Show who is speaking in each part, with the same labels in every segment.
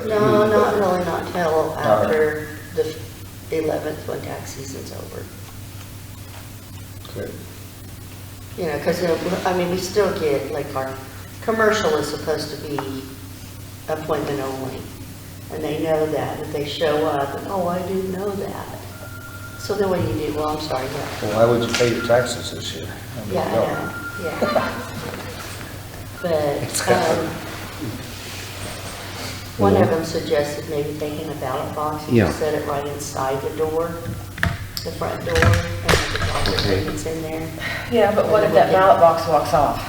Speaker 1: Mm-hmm.
Speaker 2: No, not really, not till after the 11th, when tax season's over.
Speaker 1: Okay.
Speaker 2: You know, because, I mean, we still get, like, our commercial is supposed to be appointment only. And they know that, if they show up, and, oh, I do know that. So then what do you do? Well, I'm sorry, yeah.
Speaker 1: Well, why would you pay your taxes this year? I mean,
Speaker 2: Yeah, I
Speaker 1: no.
Speaker 2: know, yeah. But, um, one of them suggested maybe taking a ballot box and just
Speaker 3: Yeah.
Speaker 2: set it right inside the door, the front door, and the ballot
Speaker 3: Okay.
Speaker 2: that's in there.
Speaker 4: Yeah, but what if that ballot box walks off?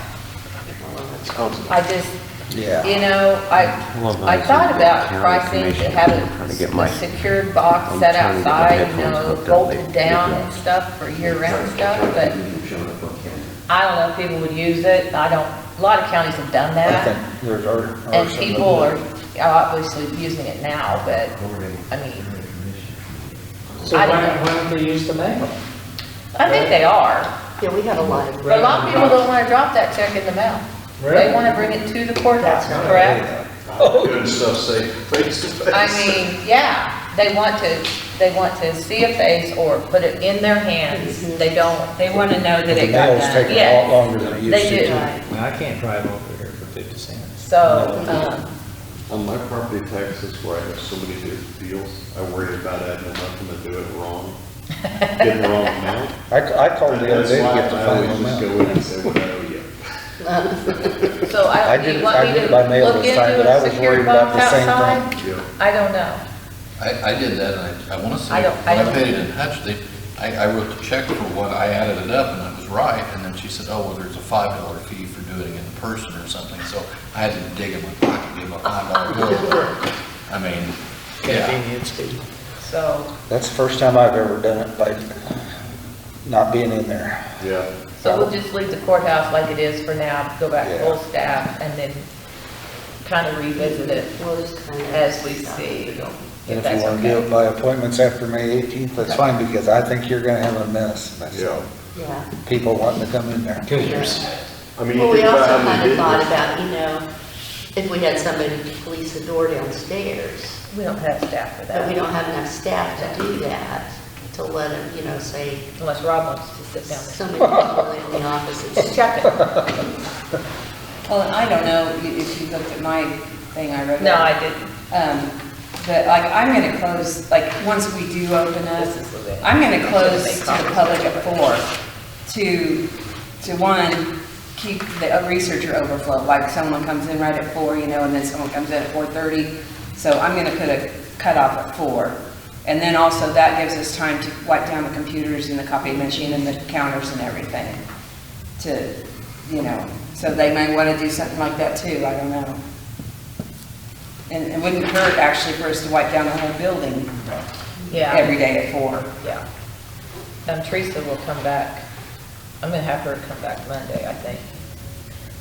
Speaker 5: Oh.
Speaker 4: I just,
Speaker 1: Yeah.
Speaker 4: you know, I,
Speaker 3: Well, but
Speaker 4: I
Speaker 3: it's
Speaker 4: thought
Speaker 3: the
Speaker 4: about
Speaker 3: county
Speaker 4: pricing to
Speaker 3: commission.
Speaker 4: have
Speaker 3: I'm trying to get
Speaker 4: a
Speaker 3: my-
Speaker 4: a secured box
Speaker 3: I'm
Speaker 4: set
Speaker 3: trying to get my
Speaker 4: outside, you
Speaker 3: headphones hooked
Speaker 4: know,
Speaker 3: up.
Speaker 4: bolted
Speaker 3: They-
Speaker 4: down
Speaker 3: they-
Speaker 4: and stuff for year-round stuff, but I don't know if people would use it. I don't, a lot of counties have done
Speaker 1: I
Speaker 4: that.
Speaker 1: think there's our. our
Speaker 4: And
Speaker 1: some of
Speaker 4: people
Speaker 1: the-
Speaker 4: are obviously using it now, but, I mean,
Speaker 6: So why
Speaker 4: I don't
Speaker 6: don't,
Speaker 4: know.
Speaker 6: why don't they use the mail?
Speaker 4: I think they are.
Speaker 2: Yeah, we have a lot of.
Speaker 4: But a lot of people don't want to drop that check in the mail. They want to bring it to the courthouse, correct?
Speaker 5: Doing stuff safe, face to face.
Speaker 4: I mean, yeah, they want to, they want to see a face or put it in their hands. They don't, they want to know that
Speaker 1: Mm-hmm. The
Speaker 4: it got
Speaker 1: mail's
Speaker 4: done.
Speaker 1: taking a lot
Speaker 4: Yes,
Speaker 1: longer than it used
Speaker 4: they
Speaker 1: to.
Speaker 4: do.
Speaker 7: Now, I can't drive over here for 50 cents.
Speaker 4: So, um,
Speaker 5: On my property taxes, where I have so many different deals, I worry about adding enough and to do it wrong, get the wrong amount.
Speaker 1: I, I called
Speaker 5: And
Speaker 1: the other
Speaker 5: That's
Speaker 1: day to
Speaker 5: why
Speaker 1: get the
Speaker 5: I always
Speaker 1: final
Speaker 5: just
Speaker 1: amount.
Speaker 5: go in and say what I owe you.
Speaker 4: so
Speaker 1: I
Speaker 4: I, do
Speaker 1: did
Speaker 4: you
Speaker 1: it-
Speaker 4: want
Speaker 1: I
Speaker 4: me
Speaker 1: did
Speaker 4: to
Speaker 1: it by mail
Speaker 4: look
Speaker 1: this time, but
Speaker 4: into
Speaker 1: I
Speaker 4: a
Speaker 1: was
Speaker 4: secure
Speaker 1: worried about
Speaker 4: box
Speaker 1: the same
Speaker 4: outside?
Speaker 5: Yeah.
Speaker 4: I don't know.
Speaker 8: I, I did that, and I, I want to say,
Speaker 4: I
Speaker 8: when
Speaker 4: don't- I
Speaker 8: I
Speaker 4: don't-
Speaker 8: paid it in Hutch, they, I, I wrote the check for one, I added it up, and it was right, and then she said, oh, well, there's a five dollar fee for doing it in person or something, so I had to dig in my pocket, give my five dollar bill. I mean, yeah,
Speaker 7: Convenience fee.
Speaker 4: So,
Speaker 1: That's the first time I've ever done it by not being in there.
Speaker 5: Yeah,
Speaker 4: so we'll just leave the courthouse like it is for now, go back full staff and then kind of revisit it
Speaker 2: We'll just kind of.
Speaker 4: as we see. if
Speaker 1: And if you
Speaker 4: that's
Speaker 1: wanna do
Speaker 4: okay.
Speaker 1: it by appointments after May eighteenth, that's fine, because I think you're gonna have a mess. That's-
Speaker 5: yeah.
Speaker 2: Yeah.
Speaker 1: People wanting to come in there.
Speaker 7: Killers.
Speaker 5: I mean, you
Speaker 2: Well, we
Speaker 5: think about
Speaker 2: also
Speaker 5: how many
Speaker 2: kind of
Speaker 5: did
Speaker 2: thought
Speaker 5: this.
Speaker 2: about, you know, if we had somebody to police the door downstairs,
Speaker 4: We don't have staff for
Speaker 2: but we
Speaker 4: that,
Speaker 2: don't have enough staff to do that, to let them, you know, say,
Speaker 4: unless Rob wants to sit down
Speaker 2: somebody in the office
Speaker 4: there.
Speaker 2: is
Speaker 4: Just check it.
Speaker 9: Well, and I don't know i- if you looked at my thing I wrote.
Speaker 4: No, I didn't.
Speaker 9: Um, But like, I'm going to close, like, once we do open up,
Speaker 4: This is a bit-
Speaker 9: I'm going to close
Speaker 4: Make
Speaker 9: to the
Speaker 4: copies.
Speaker 9: public at four to, to one, keep the researcher overflow. Like someone comes in right at four, you know, and then someone comes in at 4:30. So I'm going to put a cutoff at four. And then also that gives us time to wipe down the computers and the copy machine and the counters and everything to, you know, so they may want to do something like that too, I don't know. And it wouldn't hurt actually for us to wipe down the whole building every
Speaker 4: Yeah,
Speaker 9: day at four.
Speaker 4: yeah. Um, Teresa will come back. I'm gonna have her come back Monday, I think.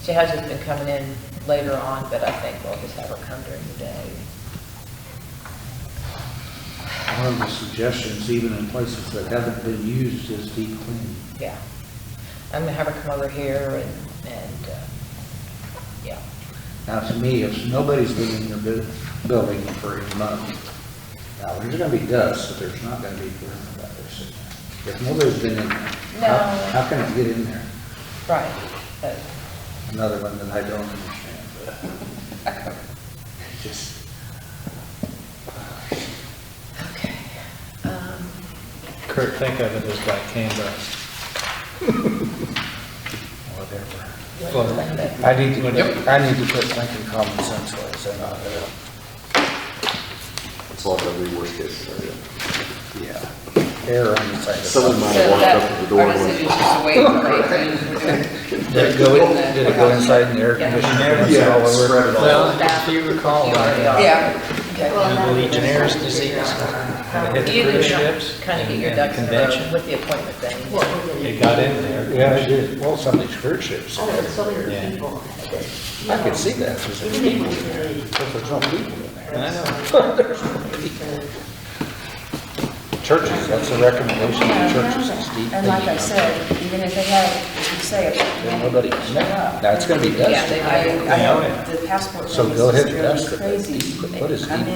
Speaker 4: She has just been coming in later on, but I think we'll just have her come during the day.
Speaker 10: One of the suggestions, even in places that haven't been used, is deep cleaning.
Speaker 4: Yeah. I'm gonna have her come over here and, and, uh, yeah.
Speaker 10: Now, to me, if nobody's been in your bu- building for a month, now, there's gonna be dust, but there's not gonna be green about this. If nobody's been in there,
Speaker 4: No.
Speaker 10: how, how can it get in there?
Speaker 4: Right. Uh, But
Speaker 10: Another one that I don't understand, but it just.
Speaker 4: Um,
Speaker 7: Kurt, think of it as like Canada. Whatever. Well,
Speaker 1: I need to,
Speaker 7: Yep.
Speaker 1: I need to put thinking common sense ways in on it.
Speaker 5: It's like every worst case scenario.
Speaker 1: Yeah. Error on the side of.
Speaker 5: Someone might
Speaker 9: So
Speaker 5: have walked
Speaker 9: that,
Speaker 5: up to the door
Speaker 9: our
Speaker 5: and went,
Speaker 9: decision is just wait for it.
Speaker 1: Did it go, in- did it go inside in the air conditioner?
Speaker 5: Yeah, it's spread it all.
Speaker 7: if you recall, uh,
Speaker 9: Yeah,
Speaker 7: the Legionnaires disease, when it hit the cruise ships.
Speaker 4: Kind of get your
Speaker 7: and the
Speaker 4: ducks in a row
Speaker 7: convention.
Speaker 4: with the appointment thing.
Speaker 2: what we're going to
Speaker 7: It got in there.
Speaker 1: Yeah, I did. Well, some of these cruise ships,
Speaker 2: I don't know, so many
Speaker 7: Yeah.
Speaker 2: people. that, you
Speaker 1: I
Speaker 2: know,
Speaker 1: could see that, there's
Speaker 2: Even if we really
Speaker 1: there's no people in there.
Speaker 7: I know.
Speaker 2: So,
Speaker 1: churches, that's a recommendation
Speaker 9: Yeah,
Speaker 1: to
Speaker 9: I know
Speaker 1: churches,
Speaker 9: that.
Speaker 1: is deep.
Speaker 9: And like I said, even if they have, if you say it.
Speaker 1: Then nobody,
Speaker 9: show up.
Speaker 1: that's gonna be
Speaker 9: Yeah,
Speaker 1: dusted.
Speaker 9: they- I, I, the passport
Speaker 1: So
Speaker 9: thing is
Speaker 1: go
Speaker 9: just
Speaker 1: ahead and
Speaker 9: driving me
Speaker 1: dust it, but
Speaker 9: crazy.
Speaker 1: deep- what is
Speaker 9: I
Speaker 1: deep
Speaker 9: mean,